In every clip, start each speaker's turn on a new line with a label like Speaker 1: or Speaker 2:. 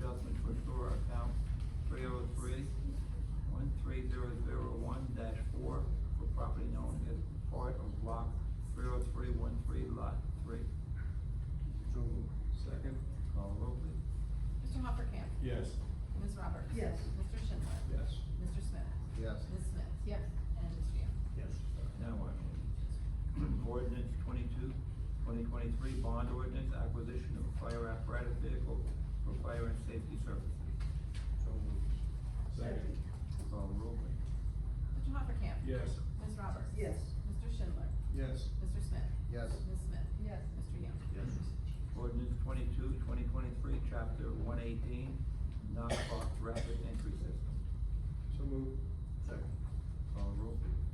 Speaker 1: oh oh
Speaker 2: Yes.
Speaker 3: Ms. Roberts?
Speaker 4: Yes.
Speaker 3: Mr. Schindler?
Speaker 2: Yes.
Speaker 3: Mr. Smith?
Speaker 5: Yes.
Speaker 3: Ms. Smith? Yes. And Ms. Yam?
Speaker 1: Yes. Now I'm on ordinance 22, 2023 bond ordinance acquisition of a fire apparatus vehicle for fire and safety services.
Speaker 5: So moved.
Speaker 2: Second.
Speaker 1: Call roll, please.
Speaker 3: Mr. Hoppercamp?
Speaker 2: Yes.
Speaker 3: Ms. Roberts?
Speaker 4: Yes.
Speaker 3: Mr. Schindler?
Speaker 5: Yes.
Speaker 3: Mr. Smith?
Speaker 5: Yes.
Speaker 3: Ms. Smith? Yes. Mr. Yam?
Speaker 1: Yes. Ordinance 22, 2023, chapter one eighteen, non-block rapid entry system.
Speaker 5: So moved. Second.
Speaker 1: Call roll, please.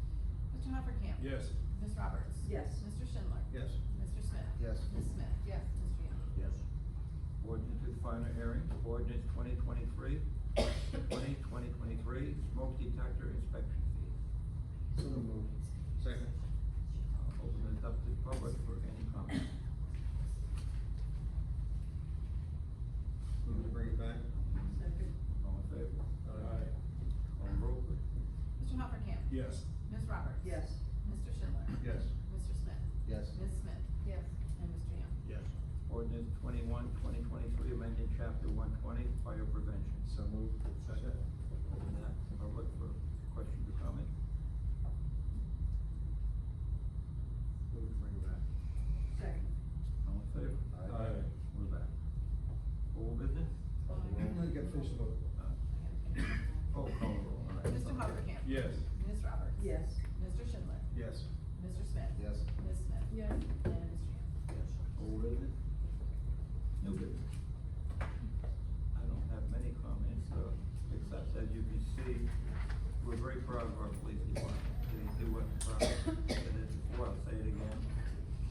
Speaker 3: Mr. Hoppercamp?
Speaker 2: Yes.
Speaker 3: Ms. Roberts?
Speaker 4: Yes.
Speaker 3: Mr. Schindler?
Speaker 5: Yes.
Speaker 3: Mr. Smith?
Speaker 5: Yes.
Speaker 3: Ms. Smith? Yes. Mr. Yam?
Speaker 1: Yes. Ordinance is final hearing, ordinance 2023, 2023 smoke detector inspection fees.
Speaker 5: So moved. Second.
Speaker 1: I'll Uh, Open it up to the public for any comments.
Speaker 5: Move to bring it back?
Speaker 4: Second.
Speaker 1: All in favor?
Speaker 2: Aye.
Speaker 1: On roll, please.
Speaker 3: Mr. Hoppercamp?
Speaker 2: Yes.
Speaker 3: Ms. Roberts?
Speaker 4: Yes.
Speaker 3: Mr. Schindler?
Speaker 5: Yes.
Speaker 3: Mr. Smith?
Speaker 5: Yes.
Speaker 3: Ms. Smith? Yes. And Mr. Yam?
Speaker 5: Yes.
Speaker 1: Ordinance 21, 2023, amended chapter one twenty, fire prevention.
Speaker 5: So moved. Second.
Speaker 1: Open that to the public for questions or comments.
Speaker 5: Move to bring it back?
Speaker 4: Second.
Speaker 1: All in favor?
Speaker 2: Aye.
Speaker 1: We're back. Old business?
Speaker 5: Oh, well, you got finished vote.
Speaker 1: Uh, Oh, call roll, all right.
Speaker 3: Mr. Hoppercamp?
Speaker 2: Yes.
Speaker 3: Ms. Roberts?
Speaker 4: Yes.
Speaker 3: Mr. Schindler?
Speaker 5: Yes.
Speaker 3: Mr. Smith?
Speaker 5: Yes.
Speaker 3: Ms. Smith? Yes. And Mr. Yam?
Speaker 1: Yes. Old business? New business? I don't have many comments, uh, except as you can see, we're very proud of our police department. They do what, uh, I said it before, I'll say it again.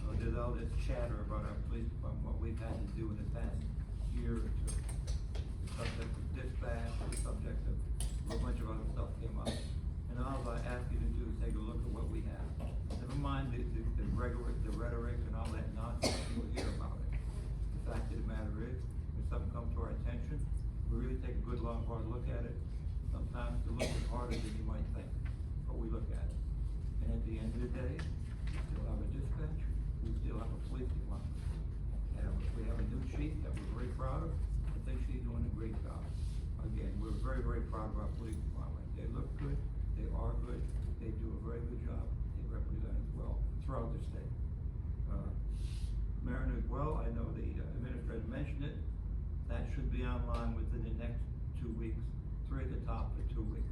Speaker 1: Uh, there's all this chatter about our police department, what we've had to do in the past year or two. The subject of dispatch, the subject of a bunch of other stuff came up. And all I ask you to do is take a look at what we have. Never mind the, the, the rhetoric, the rhetoric and all that nonsense you hear about it. The fact of the matter is, when something comes to our attention, we really take a good, long, hard look at it. Sometimes it's a little bit harder than you might think, but we look at it. And at the end of the day, we still have a dispatch, we still have a police department. And we have a new chief that we're very proud of. I think she's doing a great job. Again, we're very, very proud of our police department. They look good, they are good, they do a very good job, they represent us well throughout the state. Uh, Mariner as well, I know the uh, administrator mentioned it, that should be online within the next two weeks, three at the top for two weeks.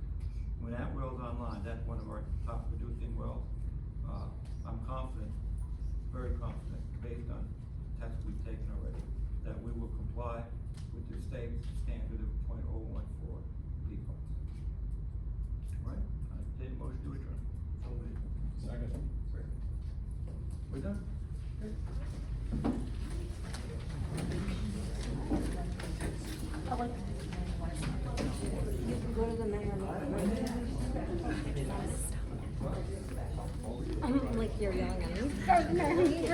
Speaker 1: When that well's online, that's one of our top producing wells, uh, I'm confident, very confident, based on tests we've taken already, that we will comply with the state standard of point oh one four people. Right, I did motion to adjourn. So
Speaker 2: Second.
Speaker 1: We're done?
Speaker 6: Go to the mayor. I'm like, you're young, I'm like, go to the mayor.